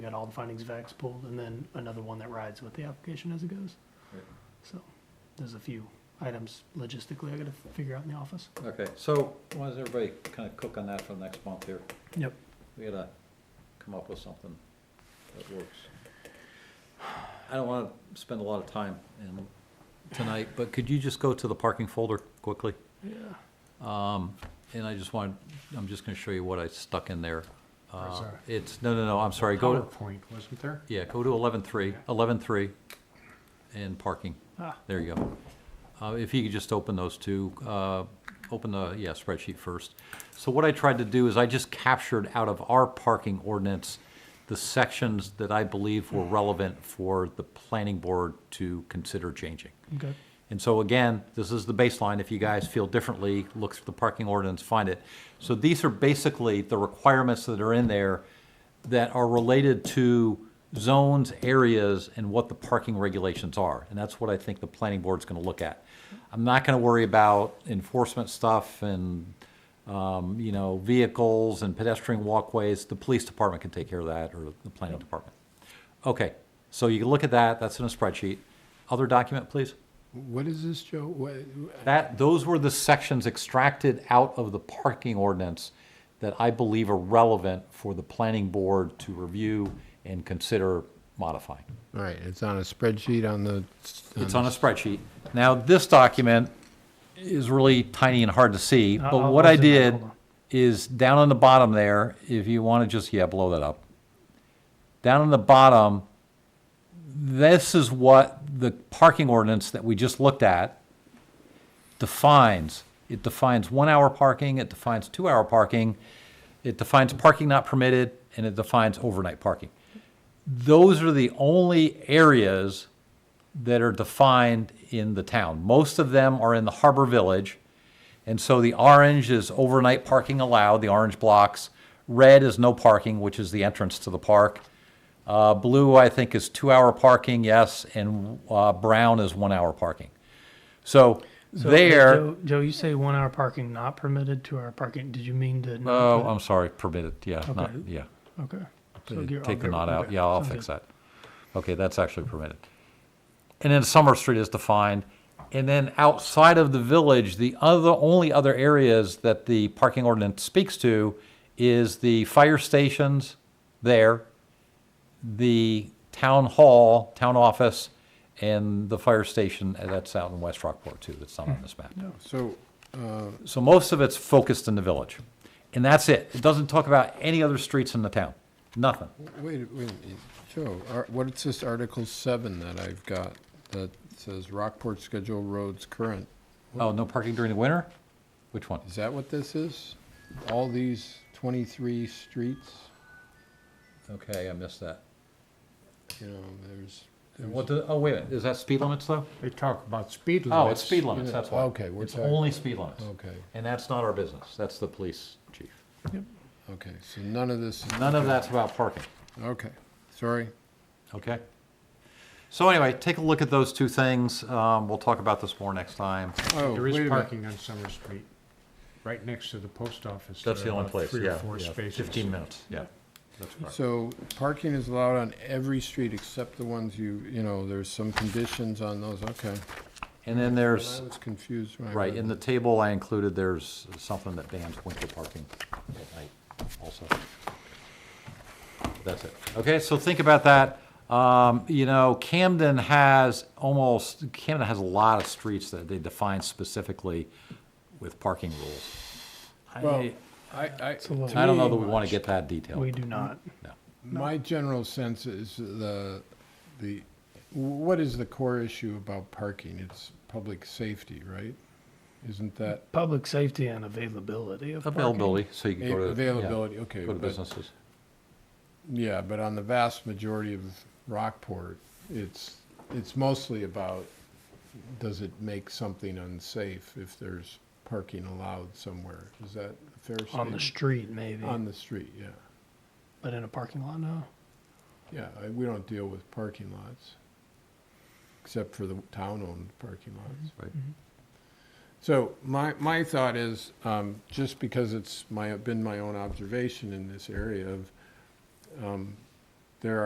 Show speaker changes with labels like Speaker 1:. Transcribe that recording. Speaker 1: You got all the findings of facts pulled, and then another one that rides with the application as it goes.
Speaker 2: Right.
Speaker 1: So, there's a few items logistically I gotta figure out in the office.
Speaker 2: Okay, so why does everybody kind of cook on that for the next month here?
Speaker 1: Yep.
Speaker 2: We gotta come up with something that works. I don't wanna spend a lot of time in tonight, but could you just go to the parking folder quickly?
Speaker 1: Yeah.
Speaker 2: Um, and I just want, I'm just gonna show you what I stuck in there. Uh,
Speaker 3: sorry.
Speaker 2: It's, no, no, no, I'm sorry, go, to
Speaker 3: PowerPoint, wasn't there?
Speaker 2: yeah, go to eleven-three, eleven-three, and parking.
Speaker 1: Ah,
Speaker 2: There you go. Uh, If you could just open those two, uh, open the, yeah, spreadsheet first. So what I tried to do is I just captured out of our parking ordinance the sections that I believe were relevant for the planning board to consider changing.
Speaker 1: okay.
Speaker 2: And so again, this is the baseline. If you guys feel differently, look through the parking ordinance, find it. So these are basically the requirements that are in there that are related to zones, areas, and what the parking regulations are. And that's what I think the planning board's gonna look at. I'm not gonna worry about enforcement stuff and, um, you know, vehicles and pedestrian walkways. The police department can take care of that, or the planning department. Okay, so you can look at that, that's in a spreadsheet. Other document, please?
Speaker 3: What is this, Joe? What,
Speaker 2: That, those were the sections extracted out of the parking ordinance that I believe are relevant for the planning board to review and consider modifying.
Speaker 3: all right, it's on a spreadsheet on the.
Speaker 2: It's on a spreadsheet. Now, this document is really tiny and hard to see,
Speaker 1: I'll-
Speaker 2: but
Speaker 1: Uh, I'll
Speaker 2: what I
Speaker 1: zoom in,
Speaker 2: did
Speaker 1: hold on.
Speaker 2: is down on the bottom there, if you want to just, yeah, blow that up. Down on the bottom, this is what the parking ordinance that we just looked at defines. It defines one-hour parking, it defines two-hour parking, it defines parking not permitted, and it defines overnight parking. Those are the only areas that are defined in the town. Most of them are in the Harbor Village. And so the orange is overnight parking allowed, the orange blocks. Red is no parking, which is the entrance to the park. Uh, blue, I think, is two-hour parking, yes, and, uh, brown is one-hour parking. So
Speaker 1: So,
Speaker 2: there.
Speaker 1: Joe, Joe, you say one hour parking not permitted, two hour parking, did you mean to? not
Speaker 2: Oh,
Speaker 1: put-
Speaker 2: I'm sorry, permitted, yeah, not,
Speaker 1: Okay.
Speaker 2: yeah.
Speaker 1: Okay. So
Speaker 3: Uh,
Speaker 1: you're-
Speaker 2: Take the
Speaker 1: okay,
Speaker 2: not out,
Speaker 1: okay.
Speaker 2: yeah, I'll
Speaker 1: Sounds
Speaker 2: fix
Speaker 1: good.
Speaker 2: that. Okay, that's actually permitted. And then Summer Street is defined. And then outside of the village, the other, only other areas that the parking ordinance speaks to is the fire stations there, the town hall, town office, and the fire station, uh, that's out in West Rockport too, that's not on this map.
Speaker 3: So,
Speaker 2: So most of it's focused in the village. And that's it. It doesn't talk about any other streets in the town. Nothing.
Speaker 3: wait, wait, Joe, ar- what's this Article Seven that I've got that says Rockport Schedule Roads Current?
Speaker 2: Oh, no parking during the winter? Which one?
Speaker 3: Is that what this is? All these twenty-three streets,
Speaker 2: Okay, I missed that.
Speaker 3: you know, there's.
Speaker 2: What, the- oh, wait a minute. Is that speed limits though?
Speaker 4: They talk about speed limits.
Speaker 2: Oh, it's speed limits, that's why.
Speaker 3: Okay, we're
Speaker 2: It's
Speaker 3: talking-
Speaker 2: only speed limits.
Speaker 4: Oh.
Speaker 3: Okay,
Speaker 2: And that's not our business. That's the police chief.
Speaker 3: okay, so none of this. is-
Speaker 2: None of that's about parking.
Speaker 3: Okay, sorry.
Speaker 2: Okay. So anyway, take a look at those two things. Um, we'll talk about this more next time.
Speaker 3: Oh, wait
Speaker 4: There
Speaker 3: a
Speaker 4: is
Speaker 3: minute.
Speaker 4: parking on Summer Street, right next to the post office.
Speaker 2: That's
Speaker 4: There
Speaker 2: the
Speaker 4: are
Speaker 2: only
Speaker 4: about
Speaker 2: place,
Speaker 4: Three
Speaker 2: yeah.
Speaker 4: or four
Speaker 2: yeah,
Speaker 4: spaces.
Speaker 2: Fifteen minutes, yeah. That's correct.
Speaker 3: So parking is allowed on every street except the ones you, you know, there's some conditions on those, okay.
Speaker 2: And then
Speaker 3: I
Speaker 2: there's.
Speaker 3: was confused when I
Speaker 2: Right,
Speaker 3: read
Speaker 2: in the
Speaker 3: that.
Speaker 2: table I included, there's something that bans winter parking at night also. That's it. Okay, so think about that. Um, you know, Camden has almost, Camden has a lot of streets that they define specifically with parking rules.
Speaker 3: Well,
Speaker 2: I,
Speaker 3: I, I.
Speaker 1: a little-
Speaker 3: to
Speaker 2: I don't know that
Speaker 3: me,
Speaker 2: we want to get that detailed.
Speaker 1: We do not.
Speaker 2: No.
Speaker 3: My general sense is the, the, what is the core issue about parking? It's public safety, right? Isn't that
Speaker 1: Public safety and availability of parking.
Speaker 2: Availability, so you can go to. yeah,
Speaker 3: availability, okay.
Speaker 2: Go to
Speaker 3: but-
Speaker 2: businesses.
Speaker 3: Yeah, but on the vast majority of Rockport, it's, it's mostly about, does it make something unsafe if there's parking allowed somewhere? Is that a fair statement?
Speaker 1: On the street, maybe,
Speaker 3: On the street, yeah.
Speaker 1: but in a parking lot, no.
Speaker 3: Yeah, I- we don't deal with parking lots, except for the town-owned parking lots.
Speaker 2: Right.
Speaker 3: So my, my thought is, um, just because it's my, been my own observation in this area of, um,